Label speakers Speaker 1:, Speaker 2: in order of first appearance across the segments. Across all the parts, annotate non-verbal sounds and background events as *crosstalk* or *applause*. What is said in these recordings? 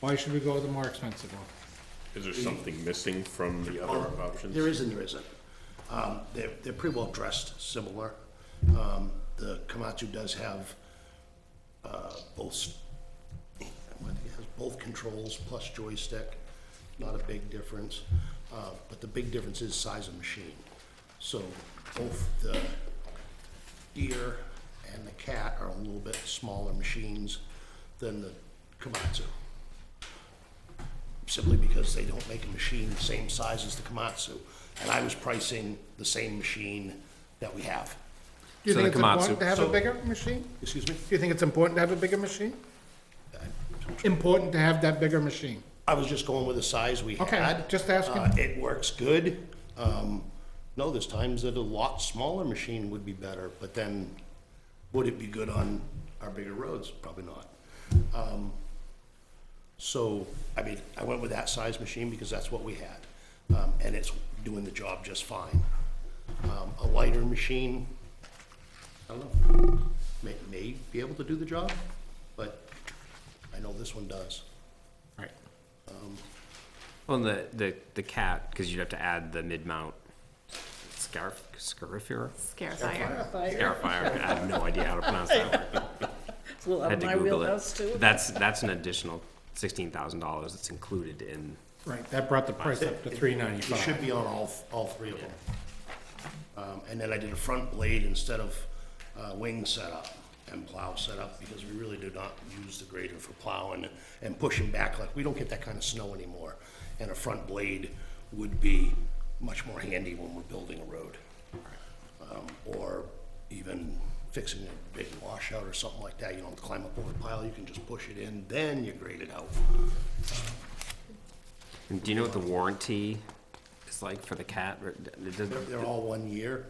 Speaker 1: Why should we go with the more expensive one?
Speaker 2: Is there something missing from the other
Speaker 3: Well,
Speaker 2: options?
Speaker 3: There is and there isn't. Um, They're, they're pretty well dressed, similar. Um, The Komatsu does have uh, both, s- what, it has both controls plus joystick, not a big difference. Uh, But the big difference is size of machine. So both the deer and the cat are a little bit smaller machines than the Komatsu simply because they don't make a machine the same size as the Komatsu. And I was pricing the same machine that we have.
Speaker 1: Do you
Speaker 4: So
Speaker 1: think it's
Speaker 4: the
Speaker 1: important
Speaker 4: Komatsu.
Speaker 1: to have a
Speaker 3: So-
Speaker 1: bigger machine?
Speaker 3: Excuse me?
Speaker 1: Do you think it's important to have a bigger machine? Important to have that bigger machine?
Speaker 3: I was just going with the size we
Speaker 1: Okay,
Speaker 3: had.
Speaker 1: just asking.
Speaker 3: Uh, It works good. Um, No, there's times that a lot smaller machine would be better, but then would it be good on our bigger roads? Probably not. Um, So, I mean, I went with that size machine because that's what we had, um, and it's doing the job just fine. Um, A lighter machine, I don't know, may, may be able to do the job, but I know this one does.
Speaker 1: Right.
Speaker 4: Well, and Um, the, the, the cat, because you'd have to add the mid-mount scarif, scarifier?
Speaker 5: Scarifier.
Speaker 4: Scarifier, I have no idea how to pronounce that word. but
Speaker 5: It's a little
Speaker 4: I
Speaker 5: out
Speaker 4: had
Speaker 5: of
Speaker 4: to
Speaker 5: my
Speaker 4: Google
Speaker 5: wheelhouse
Speaker 4: it.
Speaker 5: too.
Speaker 4: That's, that's an additional sixteen thousand dollars that's included in,
Speaker 1: Right, that brought the price up to three
Speaker 3: It should
Speaker 1: ninety-five.
Speaker 3: be on all, all three of them. Um, and then I did a front blade instead of, uh, wing setup and plow setup, because we really do not use the grader for plowing and pushing back, like, we don't get that kind of snow anymore. And a front blade would be much more handy when we're building a road. Um, or even fixing a big washout or something like that, you don't have to climb up over the pile, you can just push it in, then you grade it out.
Speaker 4: and do you know what the warranty is like for the cat? Or d- it doesn't-
Speaker 3: They're, they're all one year,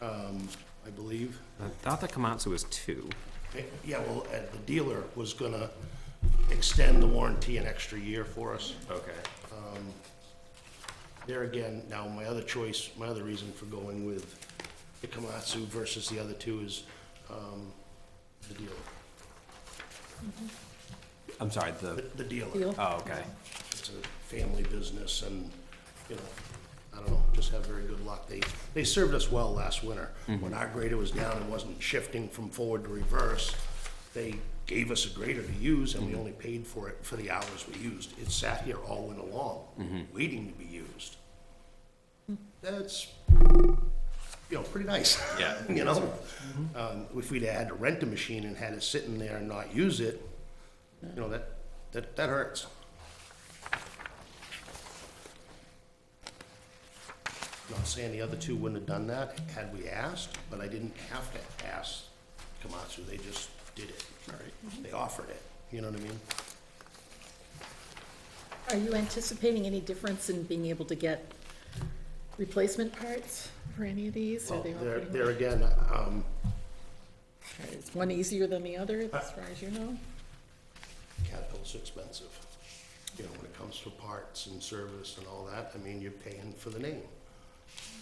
Speaker 3: um, I believe.
Speaker 4: I thought the Komatsu was two.
Speaker 3: Yeah, well, uh, the dealer was gonna extend the warranty an extra year for us.
Speaker 4: Okay.
Speaker 3: There again, now my other choice, my other reason for going with the Komatsu versus the other two is, um, the dealer.
Speaker 4: I'm sorry, the,
Speaker 3: The- The dealer,
Speaker 5: Deal.
Speaker 4: oh, okay.
Speaker 3: it's a family business and, you know, I don't know, just have very good luck. They, they served us well last winter. When our grader was down and wasn't shifting from forward to reverse, they gave us a grader to use and we only paid for it for the hours we used. It sat here all winter long, waiting to be used. That's, you know, pretty nice.
Speaker 4: Yeah.
Speaker 3: *laughs* You know? Um, if we'd had to rent a machine and had it sitting there and not use it, you know, that, that, that hurts. Not saying the other two wouldn't have done that had we asked, but I didn't have to ask Komatsu, they just did it. They offered it, you know what I mean?
Speaker 5: Are you anticipating any difference in being able to get replacement parts for any of these? Are
Speaker 3: Well,
Speaker 5: they all
Speaker 3: there,
Speaker 5: pretty
Speaker 3: there
Speaker 5: much?
Speaker 3: again, um,
Speaker 5: Is one easier than the other, as far as you know?
Speaker 3: Caterpillar's expensive. You know, when it comes to parts and service and all that, I mean, you're paying for the name.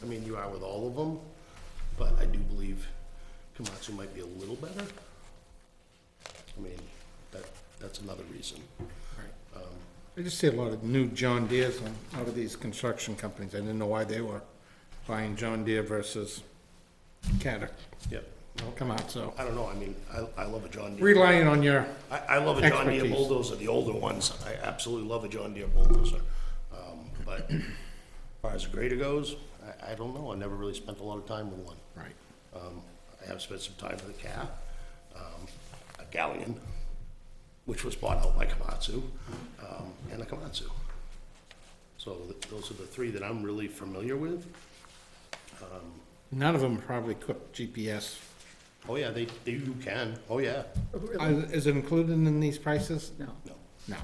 Speaker 3: I mean, you are with all of them, but I do believe Komatsu might be a little better. I mean, that, that's another reason.
Speaker 1: I just see a lot of new John Deere's on- out of these construction companies. I didn't know why they were buying John Deere versus Caterpillar.
Speaker 3: Yep.
Speaker 1: Come out, so
Speaker 3: I don't know, I mean, I, I love a John Deere.
Speaker 1: relying on your,
Speaker 3: I, I love a John Deere
Speaker 1: Expertise.
Speaker 3: bulldozer, the older ones. I absolutely love a John Deere bulldozer. Um, but as far as a grader goes, I, I don't know. I never really spent a lot of time with one.
Speaker 1: right.
Speaker 3: Um, I have spent some time with a cat, um, a galleon, which was bought out by Komatsu, um, and a Komatsu. So th- those are the three that I'm really familiar with.
Speaker 1: None of them probably equipped GPS.
Speaker 3: Oh, yeah, they, they, you can. Oh, yeah.
Speaker 1: Uh, Is it included in these prices?
Speaker 5: No.
Speaker 3: No,
Speaker 1: No.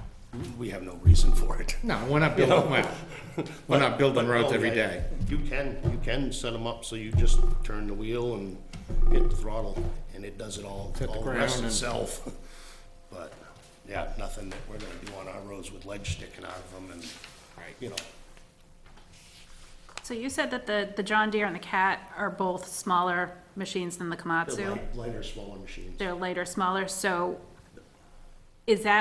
Speaker 3: we have no reason for it.
Speaker 1: No, we're not building, well, we're not building
Speaker 3: But-
Speaker 1: roads
Speaker 3: *laughs* oh,
Speaker 1: every
Speaker 3: yeah,
Speaker 1: day.
Speaker 3: You can, you can set them up so you just turn the wheel and hit the throttle, and it does it all,
Speaker 1: Hit the
Speaker 3: all the rest
Speaker 1: ground and-
Speaker 3: itself. *laughs* But, yeah, nothing that we're gonna do on our roads with ledge sticking out of them and, you know,
Speaker 6: So you said that the, the John Deere and the Cat are both smaller machines than the
Speaker 3: they're
Speaker 6: Komatsu?
Speaker 3: light- lighter, smaller machines.
Speaker 6: They're lighter, smaller, so is that